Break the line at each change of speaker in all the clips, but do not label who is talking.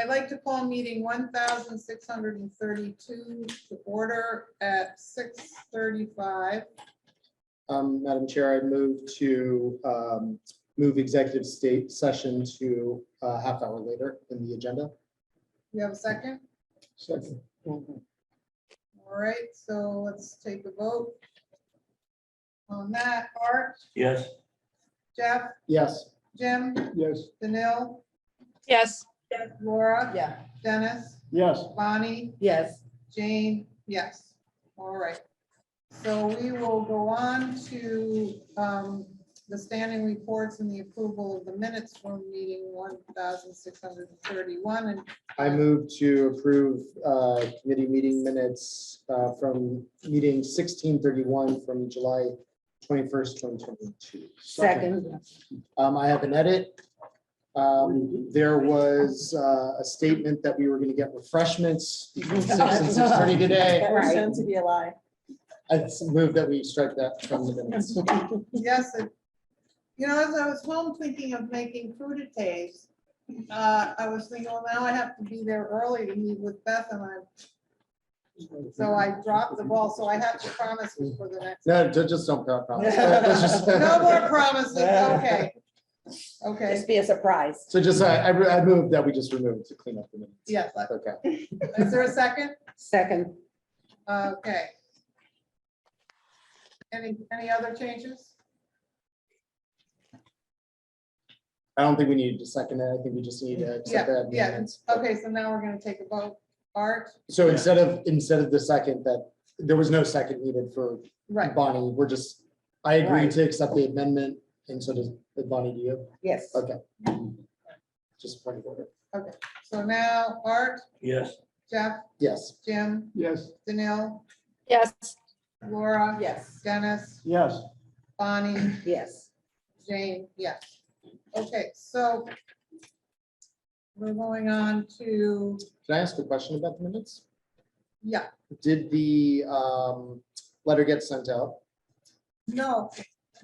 I'd like to call meeting one thousand six hundred and thirty-two to order at six thirty-five.
Um, Madam Chair, I move to, um, move executive state session to a half hour later in the agenda.
You have a second?
Second.
All right, so let's take a vote. On that, Art,
Yes.
Jeff,
Yes.
Jim,
Yes.
Danil,
Yes.
Laura,
Yeah.
Dennis,
Yes.
Bonnie,
Yes.
Jane, yes. All right. So we will go on to um, the standing reports and the approval of the minutes from meeting one thousand six hundred and thirty-one and
I move to approve, uh, committee meeting minutes, uh, from meeting sixteen thirty-one from July twenty-first, twenty twenty-two.
Second.
Um, I have an edit. Um, there was, uh, a statement that we were gonna get refreshments between six and six thirty today.
That was shown to be a lie.
I move that we strike that from the minutes.
Yes, it- you know, as I was home thinking of making crudités, uh, I was thinking, well, now I have to be there early to meet with Beth and I, so I dropped the ball, so I have to promise you for the next.
No, ju- just don't. pro- promise. Uh, let's just-
No more promises, okay. Okay,
Just be a surprise.
So just, I, I re- I moved that we just removed to clean up the minutes.
yes,
Okay.
is there a second?
Second.
Okay. Any, any other changes?
I don't think we needed to second it. I think we just need to
Yeah,
accept that.
yeah,
minutes.
Okay, so now we're gonna take a vote. Art,
So instead of, instead of the second, that, there was no second needed for
right,
Bonnie, we're just, I agree
Right.
to accept the amendment, and so does Bonnie, do you?
Yes.
Okay. Just point of order.
so now Art,
Yes.
Jeff,
Yes.
Jim,
Yes.
Danil,
Yes.
Laura.
Yes.
Dennis,
Yes.
Bonnie,
Yes.
Jane, yes. Okay, so we're going on to,
Can I ask a question about the minutes?
yeah,
Did the um, letter get sent out?
no,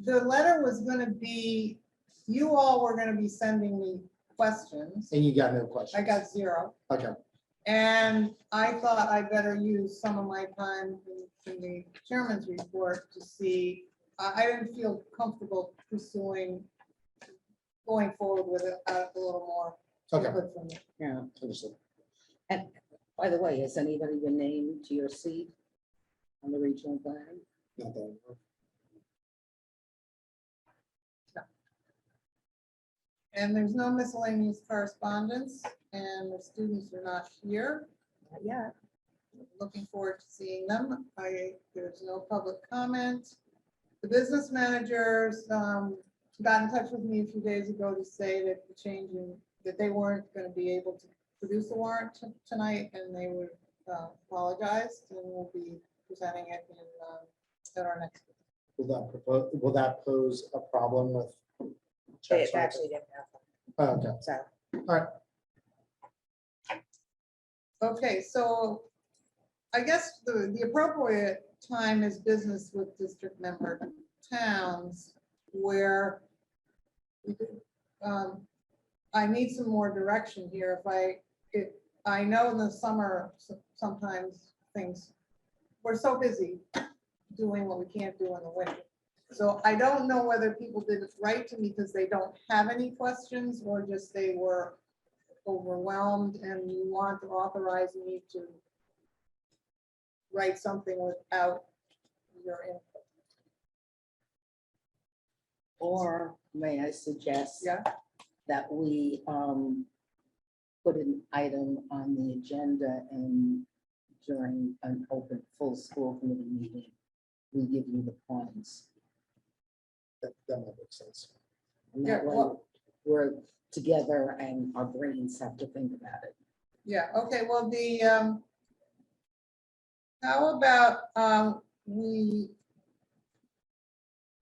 the letter was gonna be, you all were gonna be sending me questions.
And you got no questions?
I got zero.
Okay,
And I thought I better use some of my time in- in the chairman's report to see, I, I didn't feel comfortable pursuing, going forward with it uh, a little more.
okay,
input from you.
Yeah,
understood.
and by the way, has anybody been named to your seat on the regional plan?
Not that I know of.
And there's no miscellaneous correspondence, and the students are not here.
Yeah.
Looking forward to seeing them. I, there's no public comment. The business managers um, got in touch with me a few days ago to say that the change in, that they weren't going to be able to produce the warrant t- tonight, and they would uh, apologize, and we'll be presenting it in, um, at our next.
Will that propose, will that pose a problem with?
They
checks?
actually didn't have
Oh, Okay,
one, so.
Okay, so I guess the, the appropriate time is business with district member towns where we could, um, I need some more direction here. If I, if, I know in the summer, so- sometimes things, we're so busy doing what we can't do in the winter. So I don't know whether people did it right to me because they don't have any questions or just they were overwhelmed and you want to authorize me to write something without your input.
Or may I suggest?
Yeah.
That we um put an item on the agenda and during an open full school committee meeting, we give you the points.
that, that might make sense.
And
Yeah,
that way,
well-
we're together and our brains have to think about it.
Yeah, okay, well, the, um, how about, um, we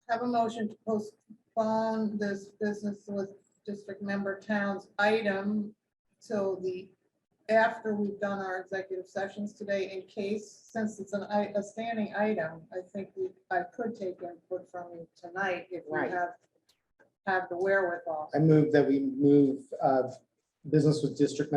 have a motion to postpone this business with district member towns item till the, after we've done our executive sessions today in case, since it's an, i- a standing item, I think we, I could take input from you tonight if we
Right.
have, have the wherewithal.
I move that we move uh, business with district